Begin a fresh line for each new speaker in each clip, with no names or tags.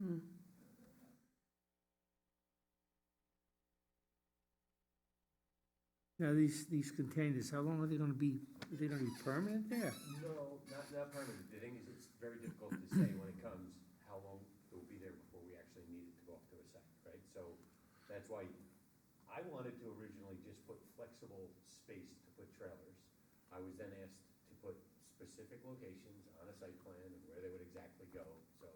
Hmm. Now, these, these containers, how long are they gonna be, are they gonna be permanent there?
No, not, not permanent. The thing is, it's very difficult to say when it comes, how long it will be there before we actually need it to go off to a site, right? So that's why I wanted to originally just put flexible space to put trailers. I was then asked to put specific locations on a site plan and where they would exactly go, so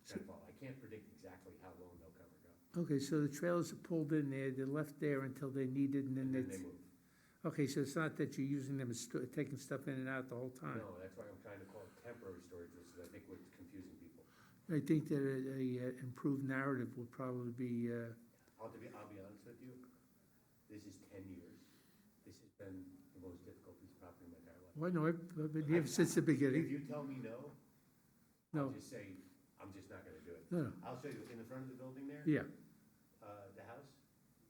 it's kind of, all- I can't predict exactly how long they'll come or go.
Okay, so the trailers are pulled in there, they're left there until they're needed and
And
then
then they
it's,
move.
okay, so it's not that you're using them as, sto- taking stuff in and out the whole time?
No, that's why I'm trying to call it temporary storage, which is I think what's confusing people.
I think that a, a uh, improved narrative would probably be, uh,
I'll be, I'll be honest with you, this is ten years. This has been the most difficult piece of property in my entire life.
well, no, I've I've been here since the beginning.
If you tell me no,
No.
I'll just say, I'm just not gonna do it.
No, no,
I'll show you, in the front of the building there,
yeah,
uh, the house,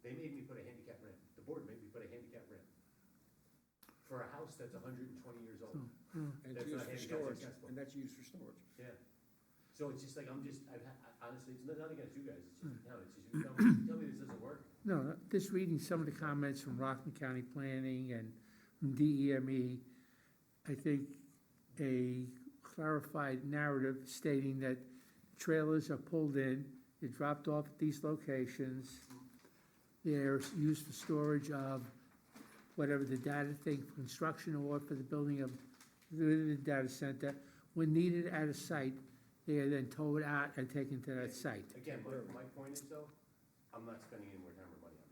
they made me put a handicap ramp. The board made me put a handicap ramp. For a house that's hundred and twenty years
Hmm.
old,
And
That's
it's used
not
for
handicap
storage,
accessible.
and that's used for storage.
yeah. So it's just like, I'm just, I've, had- I- honestly, it's nothing against you guys, it's
Hmm.
just the town, it's just, you tell me, you tell me this doesn't work,
no, just reading some of the comments from Rockland County Planning and from DEME, E, I think a clarified narrative stating that trailers are pulled in, they're dropped off at these locations, they're used for storage of whatever the data thing, for construction or for the building of the data center. When needed at a site, they are then towed out and taken to that site.
Again, my, my point is though, I'm not spending any more time or money on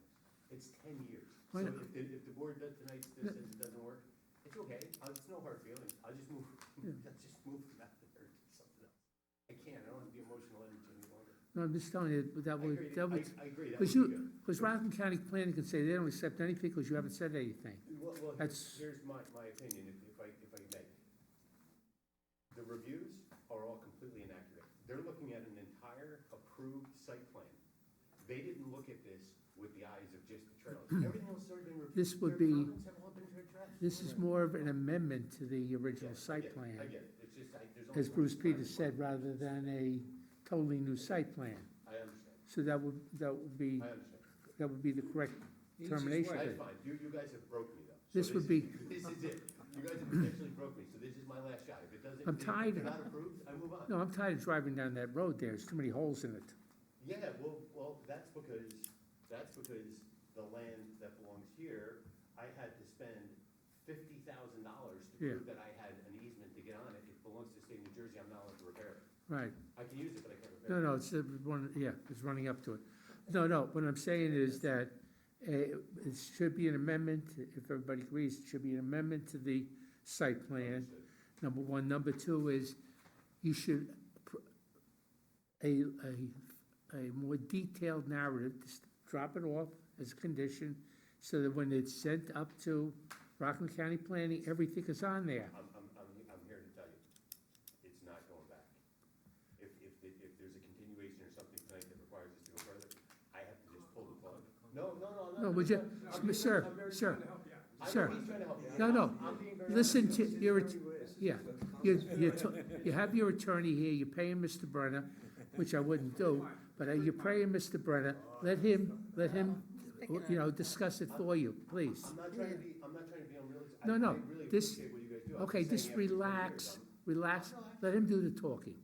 this. It's ten years. So
Why
if,
not?
the- if the board does tonight, this says it doesn't work, it's okay. Uh, It's no hard feelings. I'll just move,
Yeah.
I'll just move from out there to something else. I can't, I don't want the emotional energy any longer.
No, I'm just telling you, that
I agree,
would, that would,
I, I agree, that would
because
be good.
you, because Rockland County Planning can say they don't accept anything because you haven't said anything.
Well, well,
That's-
here's, here's my, my opinion, if, if I, if I may. The reviews are all completely inaccurate. They're looking at an entire approved site plan. They didn't look at this with the eyes of just the trailers. Everything else has already been reviewed.
This would
Their
be-
comments have all been addressed.
This is more of an amendment to the
Yeah, I
original
get
site
it,
plan,
I get it, it's just, I, there's only.
as
one
Bruce
time.
Peters said, rather than a totally new site plan.
I understand,
So that would, that would be,
I understand.
that would be the correct termination.
That's
date.
fine, you, you guys have broke me though. So
This would
is- This is it. You guys have potentially broke me, so this is my last shot. If it doesn't,
I'm
if
tired
it's
of-
not approved, I move on.
No, I'm tired of driving down that road there, there's too many holes in it.
Yeah, well, well, that's because, that's because the land that belongs here, I had to spend fifty thousand dollars to
Yeah.
prove that I had an easement to get on it. It belongs to the state of New Jersey, I'm not allowed to repair it.
Right,
I can use it, but I can't
no,
repair it.
no, it's, uh, one, yeah, it's running up to it. No, no, what I'm saying is that uh, it should be an amendment, if everybody agrees, it should be an amendment to the site plan.
Understood.
number one. Number two is you should, pr- a, a, a more detailed narrative, just drop it off as a condition so that when it's sent up to Rockland County Planning, everything is on there.
I'm, I'm, I'm, I'm here to tell you, it's not going back. If, if, the- if there's a continuation or something tonight that requires us to go further, I have to just pull the plug. No, no, no, no.
No, would you, sir, sir,
I know
sir.
he's trying to help you.
No, no.
I'm being very
listen
honest.
to, your. yeah. You, you, t- you have your attorney here, you're paying Mr. Brenner, which I wouldn't do, but uh, you're paying Mr. Brenner, let him, let him, you know, discuss it for you, please.
I'm not trying to be, I'm not trying to be unrealistic. I-
No, no,
I really
this-
appreciate what you guys do. I'm
Okay,
saying
just
after 10 years,
relax,
I'm-
relax, let him do the talking.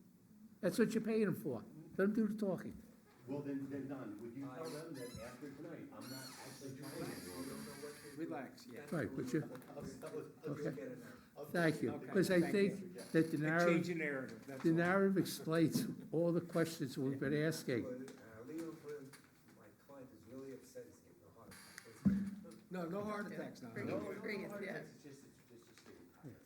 That's what you're paying him for, let him do the talking.
Well, then, then Don, would you tell them that after tonight, I'm not actually trying anymore?
Relax, yeah.
Right, but you,
I'll- I'll- I'll-
okay,
I'll-
thank you,
Okay,
because I
thank
think that the
A change
narrative,
in narrative, that's
the
all.
narrative explains all the questions we've been asking.
Uh, Leo, my client is really upset, he's getting a heart attack.
No, no heart attacks now.
No,
no.
no, no,
Bring it,
no,
yeah.
it's just, it's just, it's just getting tired.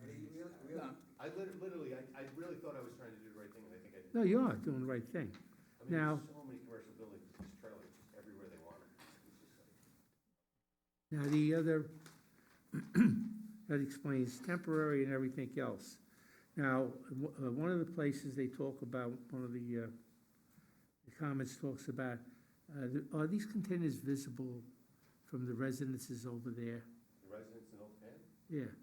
And he really, really,
No,
I lit- literally, I, I really thought I was trying to do the right thing, and I think I did.
No, you are doing the right thing.
I mean, there's
Now-
so many commercial buildings, with these trailers just everywhere they want it. It's just like-
Now, the other, that explains temporary and everything else. Now, w- uh, one of the places they talk about, one of the uh, the comments talks about, uh, the- are these containers visible from the residences over there?
The residents in Old Penn,
Yeah,